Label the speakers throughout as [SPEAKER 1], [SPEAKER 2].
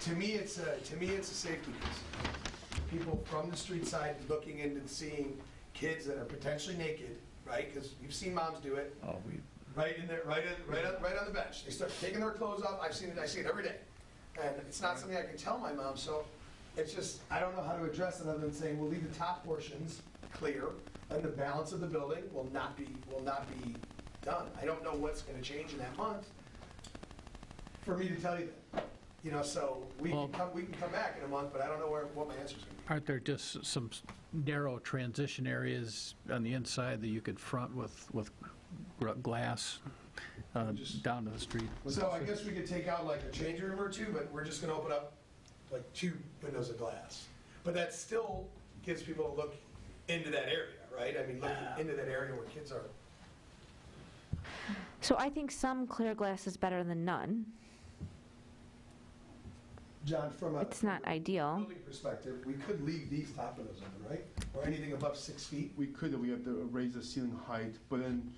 [SPEAKER 1] to me, it's a, to me, it's a safety concern. People from the street side looking in and seeing kids that are potentially naked, right? Because you've seen moms do it,
[SPEAKER 2] Oh, we,
[SPEAKER 1] right in there, right, in- right, on- right on the bench. They start taking their clothes off. I've seen it, I see it every day. And it's not something I can tell my mom, so it's just, I don't know how to address it other than saying, we'll leave the top portions clear and the balance of the building will not be, will not be done. I don't know what's gonna change in that month for me to tell you that. You know, so we
[SPEAKER 3] Well-
[SPEAKER 1] can come, we can come back in a month, but I don't know where, what my answer's gonna be.
[SPEAKER 3] Aren't there just some s- narrow transition areas on the inside that you could front with, with gr- glass uh,
[SPEAKER 1] Just-
[SPEAKER 3] down to the street?
[SPEAKER 1] So I guess we could take out like a change room or two, but we're just gonna open up like two windows of glass. But that still gives people a look into that area, right? I mean, looking into that area where kids are.
[SPEAKER 4] So I think some clear glass is better than none.
[SPEAKER 1] John, from a
[SPEAKER 4] It's not ideal.
[SPEAKER 1] building perspective, we could leave these top windows open, right? Or anything above six feet?
[SPEAKER 5] We could, we have to raise the ceiling height, but then,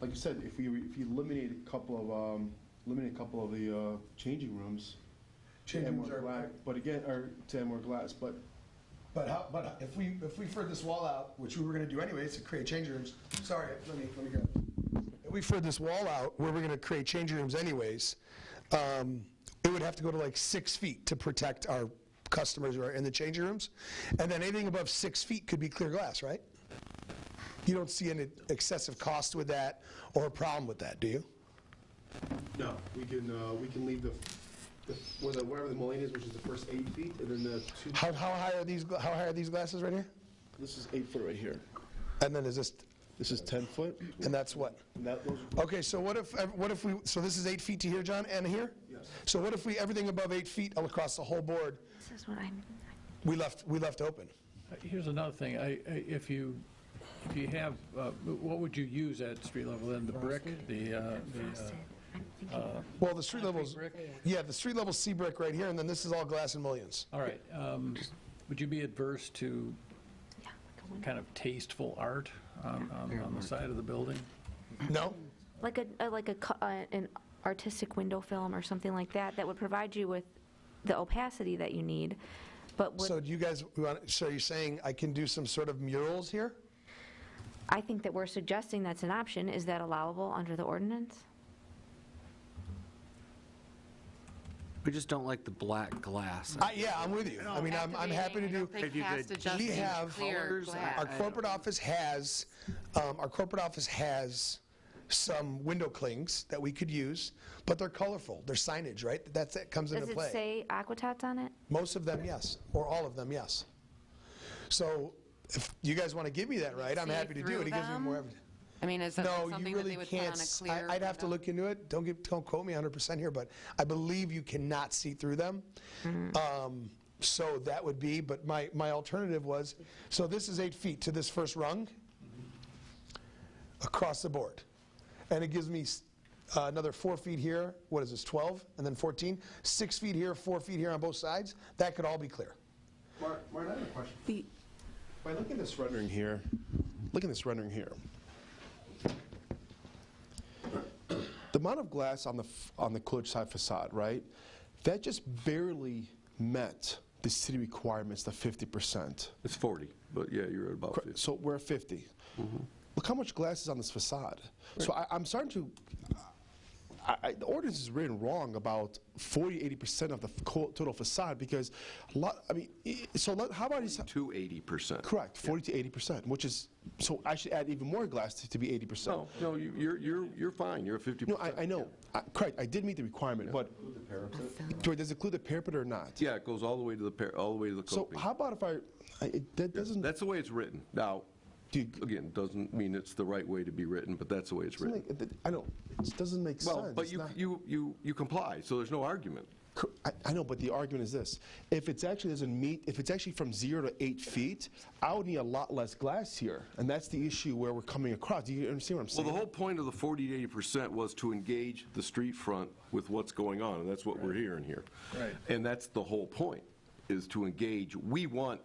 [SPEAKER 5] like you said, if we, if you eliminate a couple of, um, eliminate a couple of the, uh, changing rooms. to add
[SPEAKER 1] Change rooms
[SPEAKER 5] more gla-
[SPEAKER 1] are,
[SPEAKER 5] But again, or to add more glass, but
[SPEAKER 1] but how, but if we, if we furred this wall out, which we were gonna do anyways, to create change rooms, sorry, let me, let me go. If we furred this wall out, where we're gonna create change rooms anyways, um, it would have to go to like six feet to protect our customers who are in the changing rooms. And then anything above six feet could be clear glass, right? You don't see any excessive cost with that or a problem with that, do you?
[SPEAKER 5] No, we can, uh, we can leave the, the- whether- whatever the mullion is, which is the first eight feet, and then the two,
[SPEAKER 1] How, how high are these, gla- how high are these glasses right here?
[SPEAKER 5] this is eight foot right here.
[SPEAKER 1] And then is this,
[SPEAKER 5] This is 10 foot,
[SPEAKER 1] and that's what?
[SPEAKER 5] and that, those,
[SPEAKER 1] Okay, so what if, ev- what if we, so this is eight feet to here, John, and here?
[SPEAKER 5] Yes.
[SPEAKER 1] So what if we, everything above eight feet across the whole board,
[SPEAKER 4] This is what I'm.
[SPEAKER 1] we left, we left open?
[SPEAKER 3] Uh, Here's another thing, I, I- if you, if you have, uh, what would you use at street level, then the brick, the, uh, the, uh,
[SPEAKER 4] I'm thinking.
[SPEAKER 1] Well, the street levels,
[SPEAKER 3] brick?
[SPEAKER 1] yeah, the street level C brick right here, and then this is all glass and mullions.
[SPEAKER 3] all right, um, would you be adverse to kind of tasteful art on, on on the side of the building?
[SPEAKER 1] No?
[SPEAKER 4] Like a, a like a cu- uh, an artistic window film or something like that that would provide you with the opacity that you need, but would,
[SPEAKER 1] So do you guys, want- so you're saying I can do some sort of murals here?
[SPEAKER 4] I think that we're suggesting that's an option. Is that allowable under the ordinance?
[SPEAKER 6] We just don't like the black glass.
[SPEAKER 1] I, Uh, yeah, I'm with you. I mean, I'm, I'm happy to do.
[SPEAKER 7] If you could
[SPEAKER 1] We have- Our corporate office has, um, our corporate office has some window clings that we could use, but they're colorful, they're signage, right? That's, that comes into
[SPEAKER 4] Does it
[SPEAKER 1] play.
[SPEAKER 4] say aquatats on it?
[SPEAKER 1] Most of them, yes, or all of them, yes. So if you guys want to give me that right, I'm
[SPEAKER 7] see
[SPEAKER 1] happy to do
[SPEAKER 7] through
[SPEAKER 1] it. It gives me
[SPEAKER 7] them?
[SPEAKER 1] more evidence.
[SPEAKER 7] I mean, is that
[SPEAKER 1] No,
[SPEAKER 7] something
[SPEAKER 1] you
[SPEAKER 7] that
[SPEAKER 1] really
[SPEAKER 7] they would put on
[SPEAKER 1] can't.
[SPEAKER 7] a
[SPEAKER 1] s-
[SPEAKER 7] clear?
[SPEAKER 1] I- I'd have to
[SPEAKER 7] window?
[SPEAKER 1] look into it. Don't give, don't quote me 100% here, but I believe you cannot see through them.
[SPEAKER 7] Mm.
[SPEAKER 1] Um, So that would be, but my, my alternative was, so this is eight feet to this first rung across the board. And it gives me s- uh, another four feet here, what is this, 12, and then 14? Six feet here, four feet here on both sides. That could all be clear.
[SPEAKER 5] Mark, Mark, I have a question. By looking at this rendering here, look at this rendering here. The amount of glass on the, f- on the Coolidge side facade, right? That just barely met the city requirements, the 50%.
[SPEAKER 8] It's 40, but yeah, you're at about
[SPEAKER 5] Cor-
[SPEAKER 8] 50.
[SPEAKER 5] So we're at 50. Look how much glass is on this facade. So I, I'm starting to. I, I, the ordinance is written wrong about 40, 80 percent of the f- co- total facade because, a lot. I mean, i- so let, how about these?
[SPEAKER 8] To 80%.
[SPEAKER 5] Correct, 40 to 80 percent, which is so. I should add even more glass to, to be 80 percent.
[SPEAKER 8] No, no, you- you're, you're, you're fine, you're at 50%.
[SPEAKER 5] No, I, I know. I, correct, I did meet the requirement, but Joy, does it include the parapet or not?
[SPEAKER 8] Yeah, it goes all the way to the, par- all the way to the
[SPEAKER 5] So
[SPEAKER 8] coping.
[SPEAKER 5] how about if I? I it, that doesn't.
[SPEAKER 8] That's the way it's written. Now,
[SPEAKER 5] Do you-
[SPEAKER 8] again, doesn't mean it's the right way to be written, but that's the way it's
[SPEAKER 5] doesn't
[SPEAKER 8] written.
[SPEAKER 5] make, I know. It doesn't make sense.
[SPEAKER 8] Well, but
[SPEAKER 5] It's
[SPEAKER 8] you,
[SPEAKER 5] not-
[SPEAKER 8] you, you, you comply, so there's no argument.
[SPEAKER 5] Cor- I, I know, but the argument is this: if it's actually doesn't meet, if it's actually from zero to eight feet, I would need a lot less glass here, and that's the issue where we're coming across. Do you understand what I'm
[SPEAKER 8] Well,
[SPEAKER 5] saying?
[SPEAKER 8] the whole point of the 40 to 80% was to engage the street front with what's going on, and that's what we're hearing here.
[SPEAKER 3] Right.
[SPEAKER 8] And that's the whole point, is to engage. We want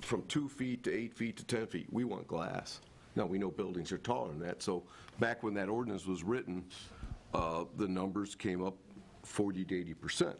[SPEAKER 8] from two feet to eight feet to 10 feet, we want glass. Now, we know buildings are taller than that, so back when that ordinance was written, uh, the numbers came up 40 to 80%.